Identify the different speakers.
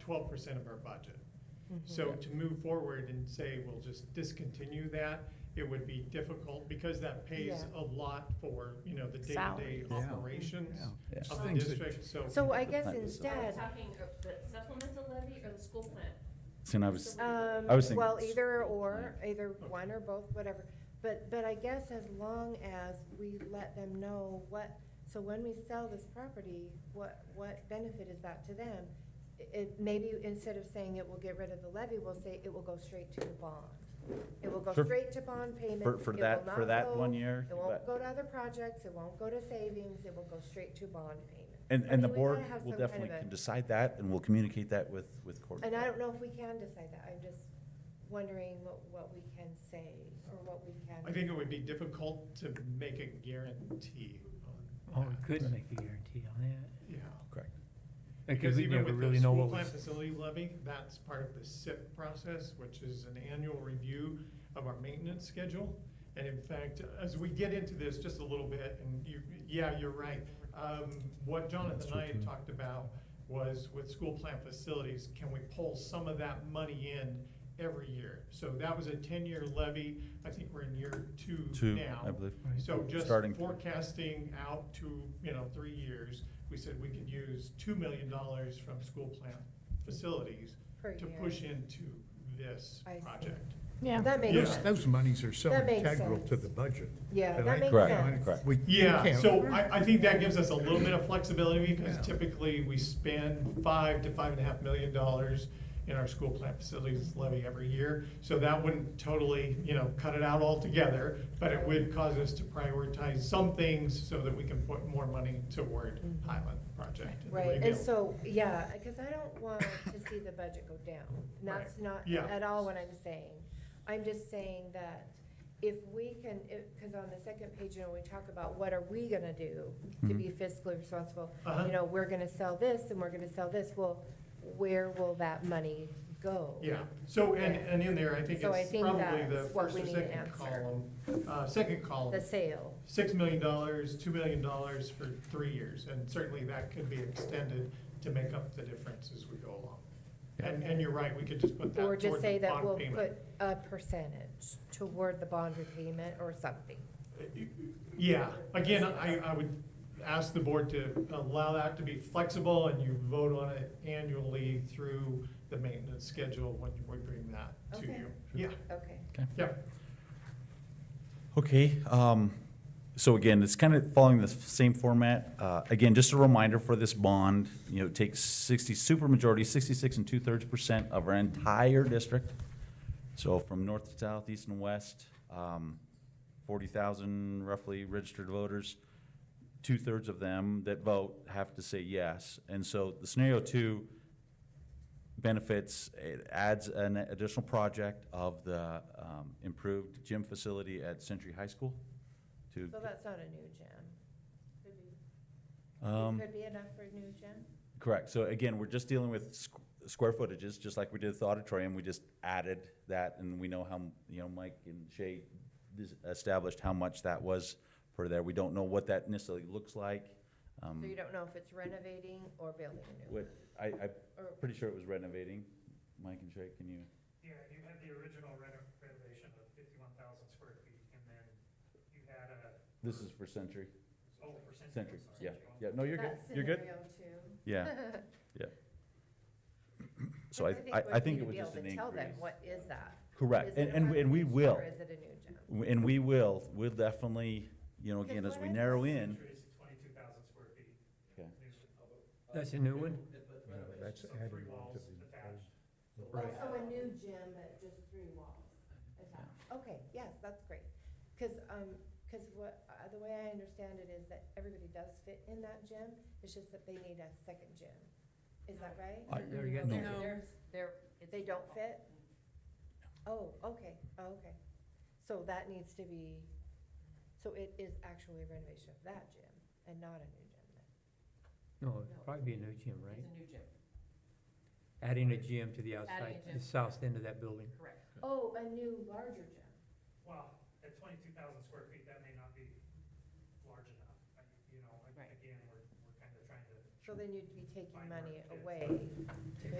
Speaker 1: twelve percent of our budget.
Speaker 2: Mm-hmm.
Speaker 1: So to move forward and say, we'll just discontinue that, it would be difficult because that pays
Speaker 2: Yeah.
Speaker 1: a lot for, you know, the day-to-day
Speaker 2: Salaries.
Speaker 3: Yeah.
Speaker 1: operations
Speaker 3: Yeah.
Speaker 1: of the
Speaker 3: Things that-
Speaker 1: district, so.
Speaker 2: So I guess
Speaker 3: Right.
Speaker 4: Are we
Speaker 2: instead,
Speaker 4: talking uh, the supplemental levy or the school plan?
Speaker 3: See, and I was,
Speaker 2: um,
Speaker 3: I was thinking
Speaker 2: well,
Speaker 3: it's-
Speaker 2: either or, either one or both, whatever. But, but I guess as long as we let them know what, so when we sell this property, what, what benefit is that to them? It- It, maybe instead of saying it will get rid of the levy, we'll say it will go straight to the bond. It will go
Speaker 3: Sure.
Speaker 2: straight to bond payment.
Speaker 3: for, for
Speaker 2: It will
Speaker 3: that, for
Speaker 2: not
Speaker 3: that
Speaker 2: go-
Speaker 3: one year,
Speaker 2: It
Speaker 3: but-
Speaker 2: won't go to other projects, it won't go to savings, it will go straight to bond payment.
Speaker 3: and,
Speaker 2: I
Speaker 3: and the
Speaker 2: mean, we gotta
Speaker 3: board
Speaker 2: have
Speaker 3: will
Speaker 2: some kind of
Speaker 3: definitely
Speaker 2: a-
Speaker 3: can decide that, and we'll communicate that with, with Courtney.
Speaker 2: And I don't know if we can decide that, I'm just wondering what, what we can say, or what we can.
Speaker 1: I think it would be difficult to make a guarantee
Speaker 5: Oh,
Speaker 1: on
Speaker 5: we
Speaker 1: that.
Speaker 5: could make a guarantee on that,
Speaker 1: Yeah. Because
Speaker 5: because we
Speaker 1: even
Speaker 5: never
Speaker 1: with
Speaker 5: really
Speaker 1: the
Speaker 5: know
Speaker 1: school
Speaker 5: what
Speaker 1: plant
Speaker 5: was.
Speaker 1: facility levy, that's part of the SIP process, which is an annual review of our maintenance schedule. And in fact, as we get into this just a little bit, and you, yeah, you're right. Um, what Jonathan and I had talked about was with school plant facilities, can we pull some of that money in every year? So that was a ten-year levy. I think we're in year two
Speaker 3: Two,
Speaker 1: now.
Speaker 3: I believe.
Speaker 5: Right.
Speaker 1: So just
Speaker 3: Starting-
Speaker 1: forecasting out to, you know, three years, we said we could use two million dollars from school plant facilities
Speaker 2: per
Speaker 1: to
Speaker 2: year.
Speaker 1: push into this
Speaker 2: I see.
Speaker 1: project.
Speaker 6: Yeah.
Speaker 2: That makes
Speaker 1: Yeah.
Speaker 7: Those,
Speaker 2: sense,
Speaker 7: those monies are so
Speaker 2: That makes
Speaker 7: integral to
Speaker 2: sense.
Speaker 7: the budget.
Speaker 2: yeah,
Speaker 7: And
Speaker 2: that
Speaker 7: I-
Speaker 2: makes
Speaker 3: Correct,
Speaker 2: sense.
Speaker 3: correct.
Speaker 7: We we
Speaker 1: Yeah,
Speaker 7: can't-
Speaker 1: so I, I think that gives us a little bit of flexibility because
Speaker 7: Yeah.
Speaker 1: typically we spend five to five and a half million dollars in our school plant facilities levy every year. So that wouldn't totally, you know, cut it out altogether, but it would cause us to prioritize some things so that we can put more money toward
Speaker 2: Mhm.
Speaker 1: Highland project. and
Speaker 2: Right,
Speaker 1: rebuild.
Speaker 2: and so, yeah, cause I don't want to see the budget go down, and that's not
Speaker 1: Yeah.
Speaker 2: at all what I'm saying. I'm just saying that if we can, if, cause on the second page, you know, we talk about what are we gonna do to
Speaker 3: Mhm.
Speaker 2: be fiscally responsible?
Speaker 1: Uh-huh.
Speaker 2: You know, we're gonna sell this and we're gonna sell this, well, where will that money go?
Speaker 1: Yeah, so, and, and in there, I think
Speaker 2: So I
Speaker 1: it's
Speaker 2: think
Speaker 1: probably the
Speaker 2: that's what
Speaker 1: first
Speaker 2: we
Speaker 1: or
Speaker 2: need to
Speaker 1: second
Speaker 2: answer.
Speaker 1: column, uh, second column,
Speaker 2: The sale.
Speaker 1: six million dollars, two million dollars for three years, and certainly that could be extended to make up the difference as we go along. And, and you're right, we could just put that
Speaker 2: Or
Speaker 1: toward
Speaker 2: just say
Speaker 1: the
Speaker 2: that
Speaker 1: bond
Speaker 2: we'll
Speaker 1: payment.
Speaker 2: put a percentage toward the bond repayment or something.
Speaker 1: Yeah, again, I, I would ask the board to allow that to be flexible, and you vote on it annually through the maintenance schedule when we bring that to
Speaker 2: Okay.
Speaker 1: you. Yeah,
Speaker 2: Okay.
Speaker 1: yeah.
Speaker 3: Okay, um, so again, it's kind of following the same format. Uh, again, just a reminder for this bond, you know, it takes sixty, supermajority, sixty-six and two-thirds percent of our entire district. So from north to south, east and west, um, forty thousand roughly registered voters. Two-thirds of them that vote have to say yes. And so the scenario two benefits, it adds an additional project of the um, improved gym facility at Century High School to,
Speaker 2: So that's not a new gym.
Speaker 3: um,
Speaker 2: Could be enough for a new gym?
Speaker 3: correct. So again, we're just dealing with squ- square footages, just like we did with the auditorium. We just added that and we know how, you know, Mike and Shay dis- established how much that was for there. We don't know what that necessarily looks like. um,
Speaker 2: So you don't know if it's renovating or building a new one?
Speaker 3: What, I, I'm
Speaker 2: Or-
Speaker 3: pretty sure it was renovating. Mike and Shay, can you?
Speaker 8: Yeah, you had the original reno- renovation of fifty-one thousand square feet, and then you had a,
Speaker 3: This is for Century,
Speaker 8: oh, for Century.
Speaker 3: Century,
Speaker 8: I'm sorry.
Speaker 3: yeah, yeah. No, you're good,
Speaker 2: That's
Speaker 3: you're good.
Speaker 2: scenario two.
Speaker 3: Yeah, yeah. So I,
Speaker 2: But
Speaker 3: I, I
Speaker 2: we'd
Speaker 3: think
Speaker 2: need
Speaker 3: it
Speaker 2: to
Speaker 3: was
Speaker 2: be able
Speaker 3: just an
Speaker 2: to
Speaker 3: increase.
Speaker 2: Tell them, what is that? Is
Speaker 3: Correct,
Speaker 2: it
Speaker 3: and,
Speaker 2: a
Speaker 3: and, we- and we
Speaker 2: renovation
Speaker 3: will,
Speaker 2: Or is it a new gym?
Speaker 3: and we will, we'll definitely, you know, again,
Speaker 2: Because
Speaker 3: as
Speaker 2: what
Speaker 3: we
Speaker 2: I-
Speaker 3: narrow in,
Speaker 8: Century is twenty-two thousand square feet.
Speaker 3: Okay.
Speaker 8: New-
Speaker 5: That's a new one?
Speaker 7: Yeah, That's
Speaker 8: so
Speaker 7: adding
Speaker 8: three
Speaker 7: on to
Speaker 8: walls
Speaker 7: the. uh,
Speaker 8: attached.
Speaker 7: old-
Speaker 2: Well,
Speaker 7: Right.
Speaker 2: so a new gym at just three walls attached. Okay, yes, that's great. Cause, um, 'cause what, uh, the way I understand it is that everybody does fit in that gym, it's just that they need a second gym. Is that right?
Speaker 3: I-
Speaker 5: There you go.
Speaker 3: No.
Speaker 4: They're- they're- they're- it's-
Speaker 2: They don't fit? Oh, okay, oh, okay. So that needs to be, so it is actually a renovation of that gym and not a new gym then?
Speaker 5: No, it'd probably be a new gym,
Speaker 4: It's
Speaker 5: right?
Speaker 4: a new gym,
Speaker 5: Adding a gym to the outside,
Speaker 4: gym.
Speaker 5: the south end of that building.
Speaker 4: correct.
Speaker 2: Oh, a new larger gym.
Speaker 8: Well, at twenty-two thousand square feet, that may not be large enough, I- you know, like,
Speaker 4: Right.
Speaker 8: again, we're, we're kind of trying to
Speaker 2: So then you'd be taking
Speaker 8: Fine
Speaker 2: money
Speaker 8: work, yeah.
Speaker 2: away